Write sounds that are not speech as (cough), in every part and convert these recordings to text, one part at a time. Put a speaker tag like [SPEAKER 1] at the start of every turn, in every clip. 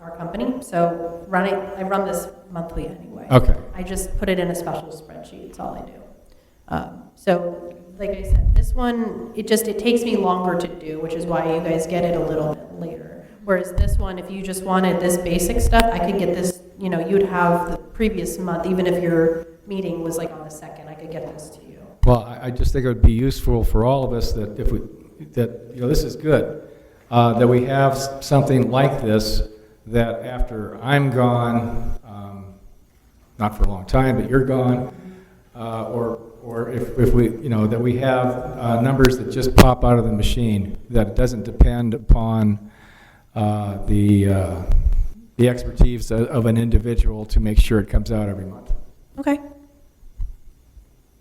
[SPEAKER 1] our company, so run it, I run this monthly anyway.
[SPEAKER 2] Okay.
[SPEAKER 1] I just put it in a special spreadsheet, it's all I do. Um, So, like I said, this one, it just, it takes me longer to do, which is why you guys get it a little bit later. Whereas this one, if you just wanted this basic stuff, I could get this, you know, you'd have the previous month, even if your meeting was like on the second, I could get this to you.
[SPEAKER 2] Well, I, I just think it would be useful for all of us that if we, that, you know, this is good, uh, that we have s- something like this, that after I'm gone, um, not for a long time, but you're gone, uh, or, or if, if we, you know, that we have, uh, numbers that just pop out of the machine, that it doesn't depend upon, uh, the, uh, the expertise of, of an individual to make sure it comes out every month.
[SPEAKER 1] Okay.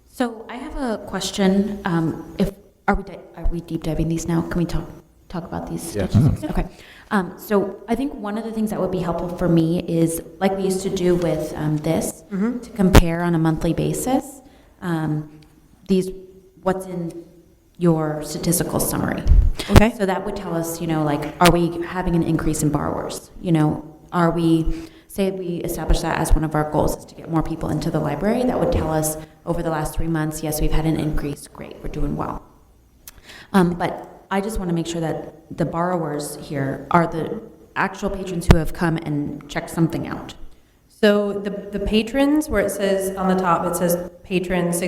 [SPEAKER 3] So I have a question. Um, If, are we, di- are we deep diving these now? Can we talk, talk about these
[SPEAKER 2] Yes.
[SPEAKER 3] statistics? Okay. Um, So I think one of the things that would be helpful for me is, like we used to do with um, this, to compare on a monthly basis, um, these, what's in your statistical summary.
[SPEAKER 1] Okay.
[SPEAKER 3] So that would tell us, you know, like, are we having an increase in borrowers? You know, are we, say we establish that as one of our goals is to get more people into the library, that would tell us over the last three months, yes, we've had an increase, great, we're doing well. Um, but I just want to make sure that the borrowers here are the actual patrons who have come and checked something out.
[SPEAKER 1] So the, the patrons, where it says on the top, it says patrons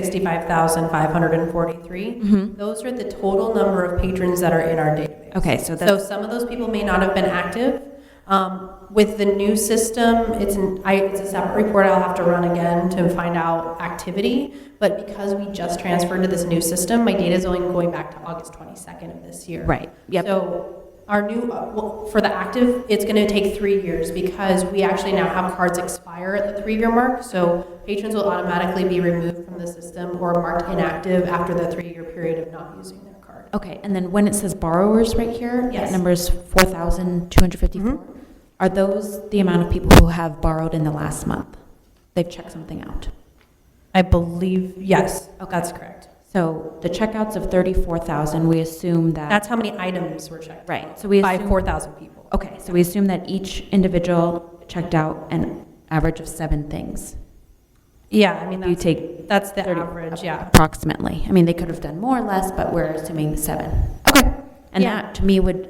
[SPEAKER 1] 65,543.
[SPEAKER 3] Mm-hmm.
[SPEAKER 1] Those are the total number of patrons that are in our database.
[SPEAKER 3] Okay,
[SPEAKER 1] So
[SPEAKER 3] so that's,
[SPEAKER 1] some of those people may not have been active. Um, With the new system, it's an, I, it's a separate report I'll have to run again to find out activity. But because we just transferred to this new system, my data is only going back to August 22nd of this year.
[SPEAKER 3] right, yep,
[SPEAKER 1] So our new, uh, well, for the active, it's going to take three years because we actually now have cards expire at the three-year mark. So patrons will automatically be removed from the system or marked inactive after the three-year period of not using their card.
[SPEAKER 3] okay, and then when it says borrowers right here,
[SPEAKER 1] Yes.
[SPEAKER 3] that number is four thousand two hundred fifty-four. Are those the amount of people who have borrowed in the last month? They've checked something out.
[SPEAKER 1] I believe, yes, that's correct.
[SPEAKER 3] So the checkouts of 34,000, we assume that.
[SPEAKER 1] That's how many items were checked.
[SPEAKER 3] Right, so we
[SPEAKER 1] By
[SPEAKER 3] assume-
[SPEAKER 1] 4,000 people.
[SPEAKER 3] Okay, so we assume that each individual checked out an average of seven things.
[SPEAKER 1] Yeah, I mean,
[SPEAKER 3] You
[SPEAKER 1] that's,
[SPEAKER 3] take
[SPEAKER 1] that's the
[SPEAKER 3] 30
[SPEAKER 1] average, yeah.
[SPEAKER 3] approximately. I mean, they could have done more or less, but we're assuming seven. Okay. And
[SPEAKER 1] Yeah.
[SPEAKER 3] that, to me, would,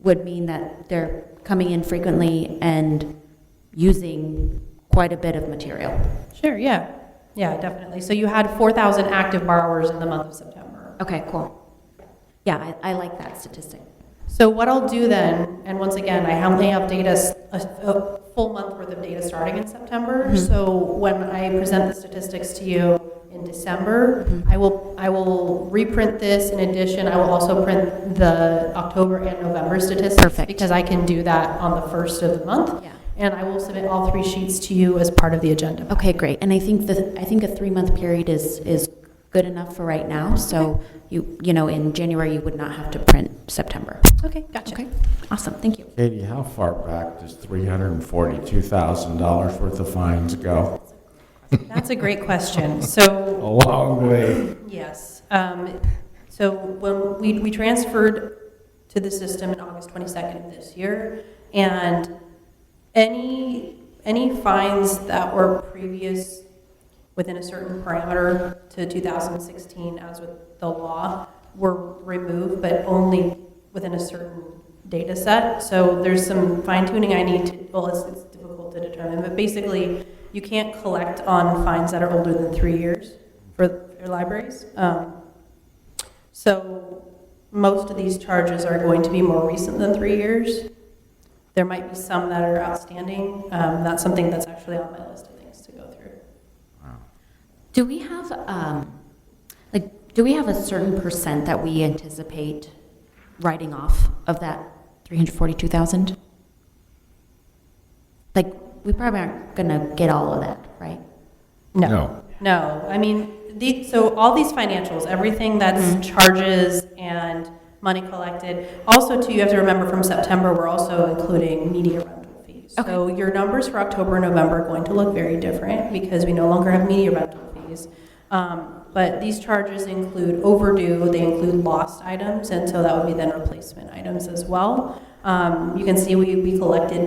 [SPEAKER 3] would mean that they're coming in frequently and using quite a bit of material.
[SPEAKER 1] Sure, yeah. Yeah, definitely. So you had 4,000 active borrowers in the month of September.
[SPEAKER 3] Okay, cool. Yeah, I, I like that statistic.
[SPEAKER 1] So what I'll do then, and once again, I only have data, s- a, a full month worth of data starting in September.
[SPEAKER 3] Mhm.
[SPEAKER 1] So when I present the statistics to you in December,
[SPEAKER 3] Mhm.
[SPEAKER 1] I will, I will reprint this. In addition, I will also print the October and November statistics.
[SPEAKER 3] Perfect.
[SPEAKER 1] Because I can do that on the first of the month.
[SPEAKER 3] Yeah.
[SPEAKER 1] And I will submit all three sheets to you as part of the agenda.
[SPEAKER 3] Okay, great. And I think the, I think a three-month period is, is good enough for right now. So you, you know, in January, you would not have to print September.
[SPEAKER 1] Oh, Okay, gotcha.
[SPEAKER 3] Okay, awesome, thank you.
[SPEAKER 4] Katie, how far back does $342,000 worth of fines go?
[SPEAKER 1] That's a great (laughs) question.
[SPEAKER 4] A
[SPEAKER 1] So,
[SPEAKER 4] long way.
[SPEAKER 1] yes. um, So when we, we transferred to the system in August 22nd of this year, and any, any fines that were previous within a certain parameter to 2016, as with the law, were removed, but only within a certain data set. So there's some fine tuning I need to, well, it's, it's difficult to determine, but basically, you can't collect on fines that are older than three years for your libraries. Um, So most of these charges are going to be more recent than three years. There might be some that are outstanding. Um, That's something that's actually on my list of things to go through.
[SPEAKER 3] Do we have, um, like, do we have a certain percent that we anticipate writing off of that 342,000? Like, we probably aren't gonna get all of that, right?
[SPEAKER 1] No, I mean, the, so all these financials, everything that's charges and money collected. Also, too, you have to remember from September, we're also including media rental fees. So your numbers for October and November are going to look very different because we no longer have media rental fees. Um, but these charges include overdue, they include lost items, and so that would be then replacement items as well. Um, you can see we, we collected